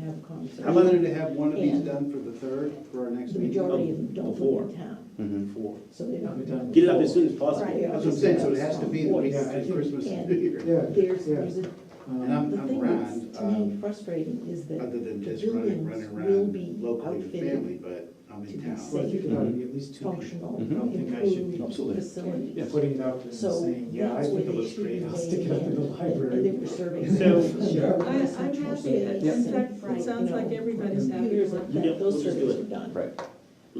town. so I wanted to have one of these And- done for the third, for our next The meeting. That's majority of them don't Before. live in town, Mhm. so they're not. gonna- Get it up as soon as possible. Right. what I'm saying, so it has to be the week Yeah, I between think- Christmas Yeah. and New Year. Yeah, There's, there's a, And um, I'm, the I'm thing around, that's to me um, frustrating is that other than the just running, buildings running will around be locally with outfitted family, but I'm to in be town. well, I think it ought to be at least two people. functional, Mhm. I don't think I should be improved Absolutely. facilities. putting it out and So saying, yeah, I that's where think it they looks should great, be I'll stick it up in the laying in, and library. they were serving. So- Yeah. I, I'm happy, it Yeah. sounds it sounds like everybody's happy Computers, with that- that. Yeah, we'll those just do surveys it. are done, Um, Right.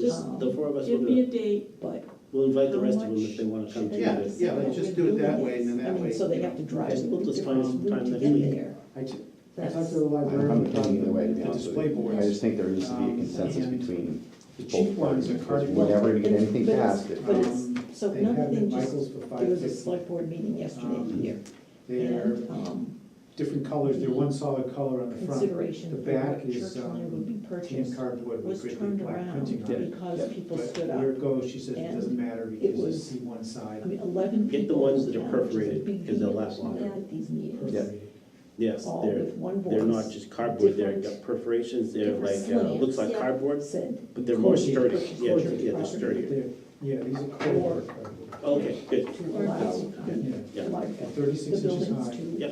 Just the four of us Give will me do a it. date, but. We'll invite the how rest of them much if they wanna come should to they Yeah, be yeah, the. let's spending just with do it that buildings? way, and then I that mean, way, So they you have to know. drive. Just- we'll just find some time to next get week. there. I ju- I That's- talked to the I'm librarian probably about leaning the way, to be the honest with display you. I just boards. think there needs to be a Um, consensus and between The cheap both ones parties. are because cardboard. Whenever you get Well, anything but it's- passed, it- But it's, Um, so They have another them thing, at just, Michael's for there was a 550. select board meeting yesterday Um, here, They're and, um, different colors, they're one solid color on the front. consideration The for what back is, church land um, would be James purchased cardboard was with great big turned black around printing on it. because people But stood up. where it goes, she says, it doesn't matter because you was- see one side. I mean, eleven people. Get the ones that are down, which is a perforated, big 'cause they'll deal. last longer. At these meetings, Yeah. perforated. Yes, all they're, with one voice. they're not just cardboard, they're different- got perforations, they're different like, uh, looks slants, like yeah. cardboard, Said, but they're more Corded sturdy. purchase, Yeah, corded yeah, they're property. sturdier. They're- Yeah, these are cardboard. cardboard. Okay, good, to allow, Yeah, Yeah. like, they're the thirty-six inches buildings high. to Yeah.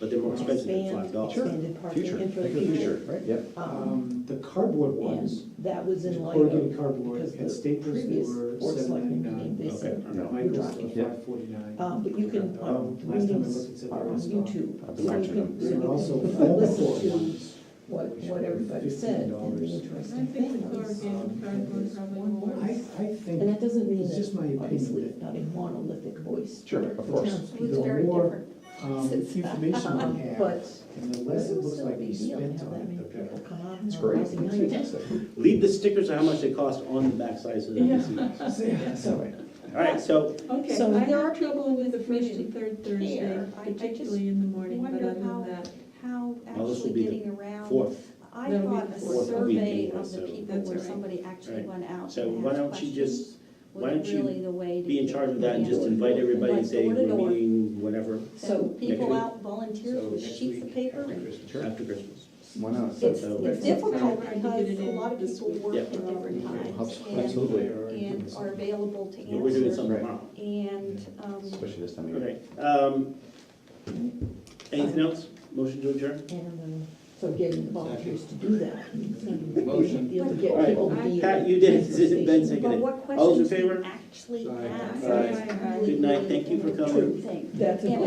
but they're more expensive than five expand, dollars. expanded future, parking think into of the the future. future, right? Yep. Um, Um, the cardboard ones, And that was the in light of corrugated cardboard, because at the Staples, they previous were board seven selectmen meeting, ninety-nine. they Okay. said, no. Michael's for Yeah. five forty-nine. um, but you can, um, Last time I looked, it meetings said are they on were stocked. YouTube. I've So been you watching can, them. so There you were also can foam core listen to ones. what, what everybody said and the $15. I interesting think the things. corrugated cardboard probably I, I works. think. And that doesn't mean It's just that, my opinion obviously, that- it's not a monolithic voice. Sure, of The course. townspeople- The more um, information Um, we have, But and the it less it would looks still like be we a deal to spent have on that it, many the people better. come out and It's great. organize a night. It's fantastic. Leave the stickers of how much they cost on the backside so that you can see. All So, right, so, Okay, So I there have are trouble with the first community and third Thursday, care. I- I just particularly in the morning, but wonder other how- than that, how well, this will actually be the getting around. fourth. I That'll be thought the a fourth. Fourth will be survey anyway, of so- the people That's where all right. somebody actually Right. went out So and why asked don't you just questions why don't was you really the way to. be in get charge of that and the just answer. invite everybody and Like say, door to we're door. meeting whenever, so And people week. out volunteers So with next sheets week, of paper. after and- Christmas. after Christmas. Why not? It's, So- it's Right. difficult Right. because a lot of This people week. work Yeah. at different times and, Absolutely. and are available to We're doing answer. something tomorrow. And, um, Especially this time of year. Okay, um, anything else? Motion to adjourn? and, uh, so getting the volunteers to do that. Motion. Be able to get All right. people to be. Pat, you did, it Ben but seconded. what All those in questions favor? you actually ask. Aye. is Aye. really Good night. Thank you for the coming. True thing. That's a And good-